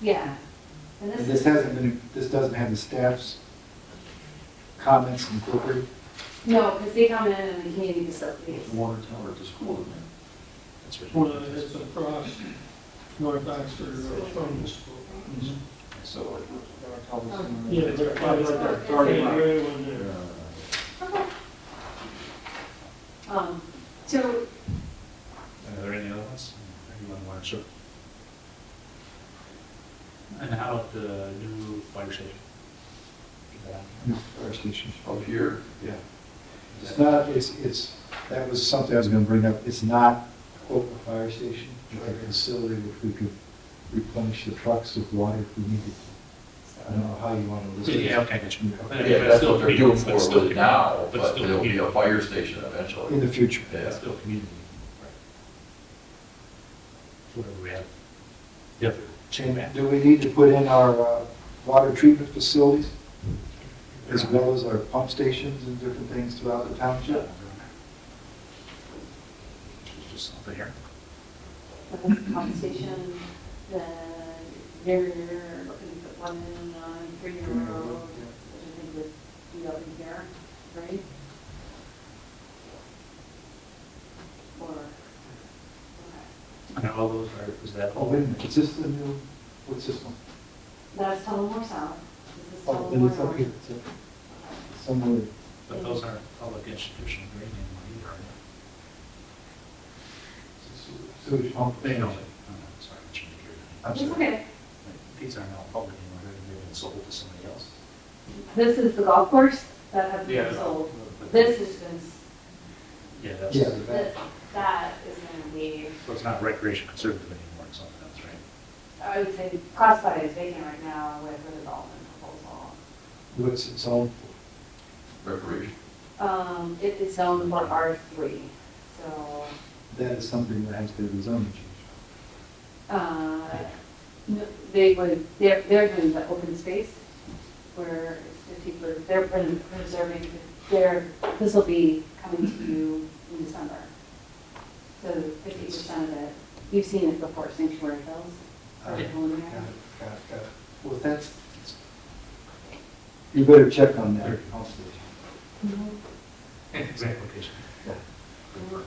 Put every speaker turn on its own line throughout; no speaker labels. Yeah, and
And
this,
this hasn't been, this doesn't have the staff's comments incorporated.
no, because they come in and the community facilities.
water tower at the school, isn't it?
That's
Well,
where-
it's across North Oxford Road uh, from the school.
So.
uh,
Yeah, they're probably there.
Starting right.
one
Uh,
there.
Um, so,
Are there any other ones? Anyone want to? And how about the new fire station?
New fire station.
Up here,
Yeah. It's not, it's, it's, that was something I was gonna bring up. It's not quote a fire station, but a facility which we could replenish the trucks with water if we needed. I don't know how you wanna list it.
Yeah, okay, I get you.
Yeah.
yeah, that's what they're doing
But
for
still-
it now,
but
but
still
there'll be
community.
a fire station
In
eventually.
the future.
Yeah.
It's still community. Whatever we have. Yep.
And do we need to put in our uh, water treatment facilities as well as our pump stations and different things throughout the township?
Just something here.
the pump station, the, they're looking to put one in on Freedom Road, which I think would be up in here, right? Or, okay.
And all those are, is that
Oh,
all?
wait a minute, is this the new, what's this one?
that's Tullamore South, this is
Oh, then it's
Tullamore
up here,
North.
it's up somewhere.
But those aren't public institution green anymore
Sewage pump.
either, are they? They know. Oh, Sorry, I shouldn't have
I'm
It's
sorry.
okay,
These aren't all public anymore, they've been sold to somebody else.
this is the golf course that has been sold, this has been, s-
Yeah, that's,
Yeah.
so
that, that is gonna be.
it's not recreation conservative anymore, it's something else, right?
I would say Crossbody is vacant right now with the development proposal.
What's its own,
Recreation.
Um, it is zoned for R three, so,
that is something that has to be zoned.
uh, n- they would, they're, they're doing the open space where it's the people, they're pre- preserving, their. this will be coming to you in December. So fifty percent of it, you've seen it before, Sanctuary Hills, or
Yeah.
Colonial.
Got it, got it, got it. Well, that's, you better check on that. pump station.
Mhm.
Exact location.
Mhm.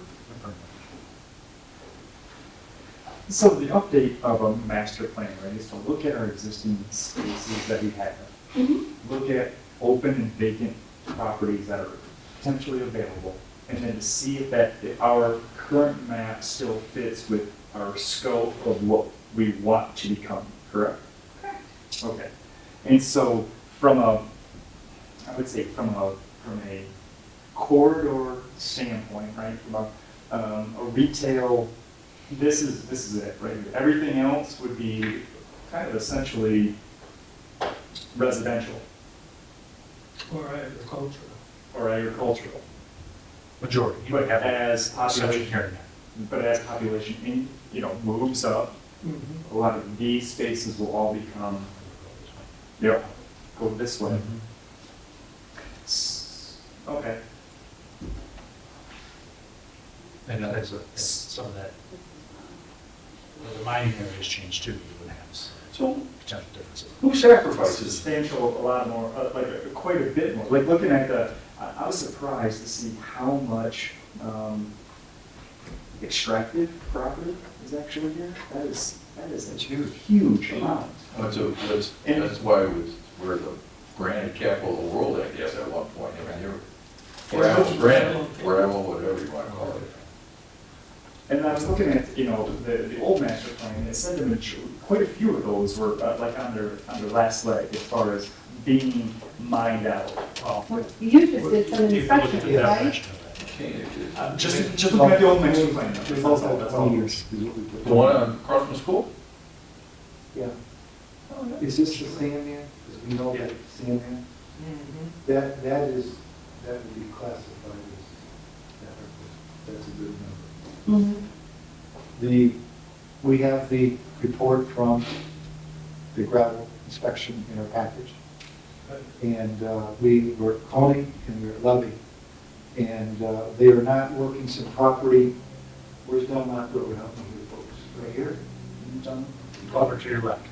So the update of a master plan, right, is to look at our existing spaces that we have.
Mhm.
Look at open and vacant properties that are potentially available. And then to see if that, if our current map still fits with our scope of what we want to become, correct? Correct. Okay. And so from a, I would say from a, from a corridor standpoint, right, from a, um, a retail this is, this is it, right? here. Everything else would be kind of essentially residential
Or agricultural.
or agricultural.
Majority, you
But
would have a
as
population
population,
here.
but as population, in- you know, moves up,
Mhm.
a lot of these spaces will all become, you know, go this way.
Mm-hmm.
S- Okay,
Mm-hmm. And that is, a- that's some of that, well, the mining area has changed too, you would have some
so
potential differences.
who sacrifices substantial, a lot more, uh, like, uh, quite a bit more? Like, looking at the, I I was surprised to see how much um, extracted property is actually here. That is, that is a huge, huge amount.
That's, a- that's,
And-
that's why it was, we're the granite capital of the world, I guess, at one point. I mean, you were, gravel, granite, gravel, whatever you want to call it.
And I was looking at, you know, the, the old master plan, it said the major, quite a few of those were uh, like on their, on their last leg as far as being mined out.
Well, You just did some
You can look at
inspections,
the
Yeah.
right?
definition of that.
Can't it is.
Uh, Just, just looking at the old master plan.
It's
that's all-
also
that's all.
twenty years. is what we put.
The one uh, on- across from school?
Yeah.
Oh,
Is this the Sandman? Because we know that Sandman,
Mm-hmm.
that, that is, that would be classified as, that- that's a good number.
Mhm.
The, we have the report from the gravel inspection in our package. And uh, we were calling and we were loving. And uh, they are not working some property, where's Belmont Road, help me here, folks, right here?
Done.
Over to your left.